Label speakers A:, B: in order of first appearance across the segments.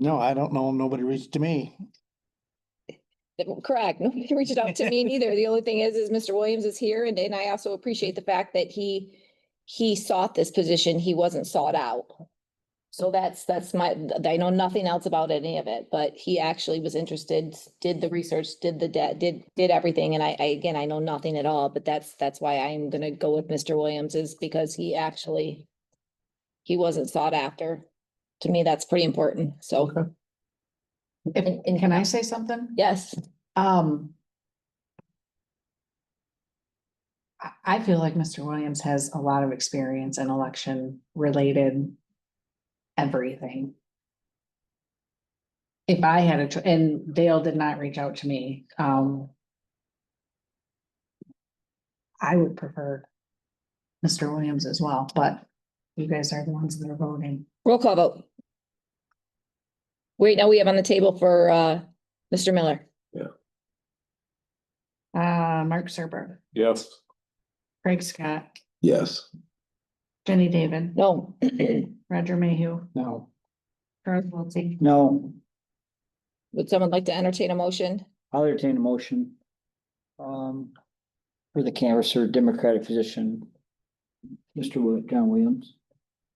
A: No, I don't know. 'em. Nobody reached to me.
B: Correct. Nobody reached out to me neither. The only thing is, is Mr. Williams is here and, and I also appreciate the fact that he, he sought this position. He wasn't sought out. So that's, that's my, I know nothing else about any of it, but he actually was interested, did the research, did the, de- did, did everything. And I, I, again, I know nothing at all, but that's, that's why I'm gonna go with Mr. Williams is because he actually, he wasn't sought after. To me, that's pretty important. So,
C: If-
B: And- and-
C: can I say something?
B: yes.
C: Um. I, I feel like Mr. Williams has a lot of experience in election related everything. If I had a, cho- and Dale did not reach out to me, um. I would prefer Mr. Williams as well, but you guys are the ones that are voting.
B: Roll call vote. Wait, now we have on the table for uh, Mr. Miller.
C: Uh, Mark Serber,
D: Yes.
C: Craig Scott,
D: Yes.
C: Jenny David,
B: No.
C: Roger Mayhew,
A: No,
C: Charles Wiltie.
E: No,
B: Would someone like to entertain a motion?
E: I'll entertain a motion. Um, for the canvasser Democratic physician. Mr. Wi- John Williams.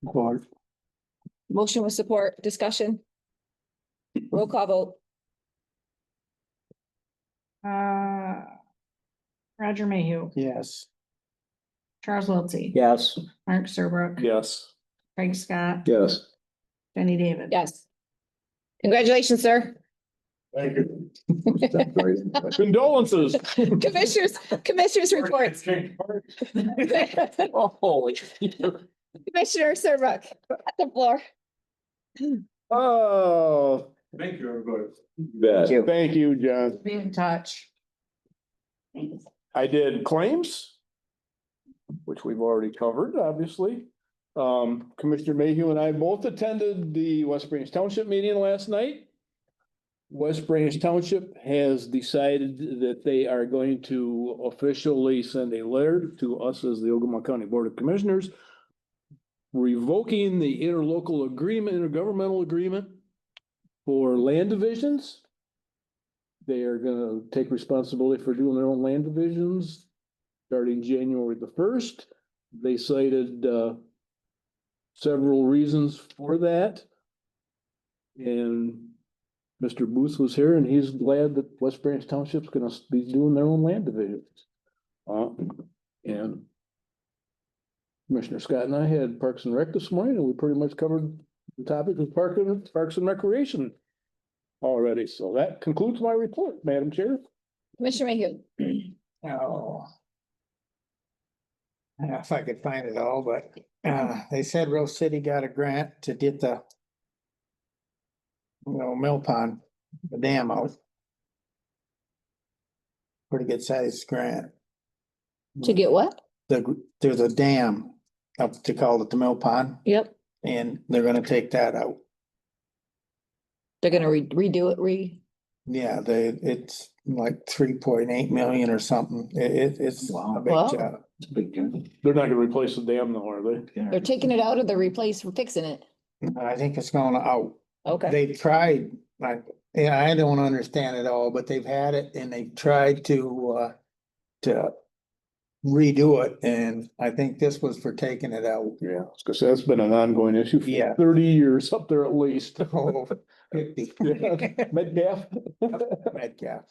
A: board.
B: Motion with support, discussion? Roll call vote.
C: Uh, Roger Mayhew,
A: Yes.
C: Charles Wiltie.
E: Yes,
C: Mark Serbrook.
D: Yes.
C: Craig Scott.
D: Yes.
C: Jenny David.
B: Yes. Congratulations, sir.
D: Thank you. Condolences.
B: Commissioners, commissioners reports.
D: Oh, holy.
B: Commissioner Serbrook at the floor.
D: Oh. Thank you, everybody. Bet.
E: you.
D: Thank you, John.
C: Be in touch.
D: I did claims, which we've already covered, obviously. Um, Commissioner Mayhew and I both attended the West Branch Township meeting last night. West Branch Township has decided that they are going to officially send a letter to us as the Ogama County Board of Commissioners revoking the interlocal agreement, intergovernmental agreement for land divisions. They are gonna take responsibility for doing their own land divisions starting January the first. They cited, uh, several reasons for that. And Mr. Booth was here and he's glad that West Branch Township's gonna be doing their own land divisions. Uh, and Commissioner Scott and I had Parks and Rec this morning and we pretty much covered the topic of Park and, Parks and Recreation already. So that concludes my report, Madam Chair.
B: Commissioner Mayhew.
A: No. Oh. I don't know if I could find it all, but uh, they said Rose City got a grant to get the you know, mill pond, the dam out. Pretty good sized grant.
B: To get what?
A: The, gr- there's a dam up to call it the mill pond
B: Yep.
A: and they're gonna take that out.
B: They're gonna re- redo it, re,
A: Yeah, they, it's like three point eight million or something. It, it- it's a
E: Wow.
A: big
B: Wow.
A: job.
E: it's a big journey.
D: They're not gonna replace the dam though, are they?
B: they're taking it out or they're replacing, fixing it.
A: I think it's going out.
B: Okay.
A: They've tried, like, and I don't understand it all, but they've had it and they've tried to, uh, to redo it. And I think this was for taking it out.
D: Yeah, because that's been an ongoing issue
A: Yeah.
D: for thirty years up there at least.
A: Oh, fifty.
D: Yeah. Metcalf.
A: Metcalf.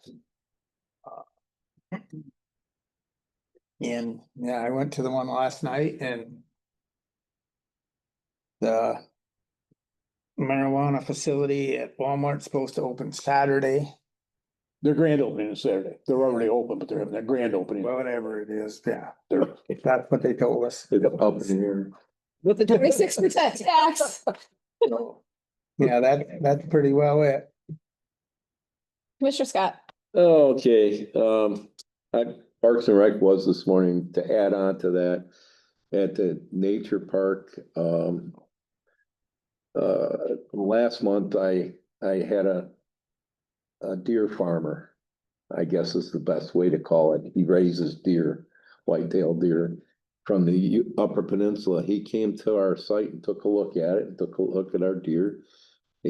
A: And, yeah, I went to the one last night and the marijuana facility at Walmart's supposed to open Saturday,
D: Their grand opening is Saturday. They're already open, but they're having their grand opening.
A: whatever it is, yeah.
D: They're-
A: If that's what they told us.
B: With the twenty-six percent tax.
A: So, Yeah, that, that's pretty well it.
B: Commissioner Scott.
F: Okay, um, I- Parks and Rec was this morning to add on to that. At the nature park, um. Uh, last month I, I had a. A deer farmer, I guess is the best way to call it. He raises deer, white-tailed deer. From the U- Upper Peninsula. He came to our site and took a look at it, and took a look at our deer.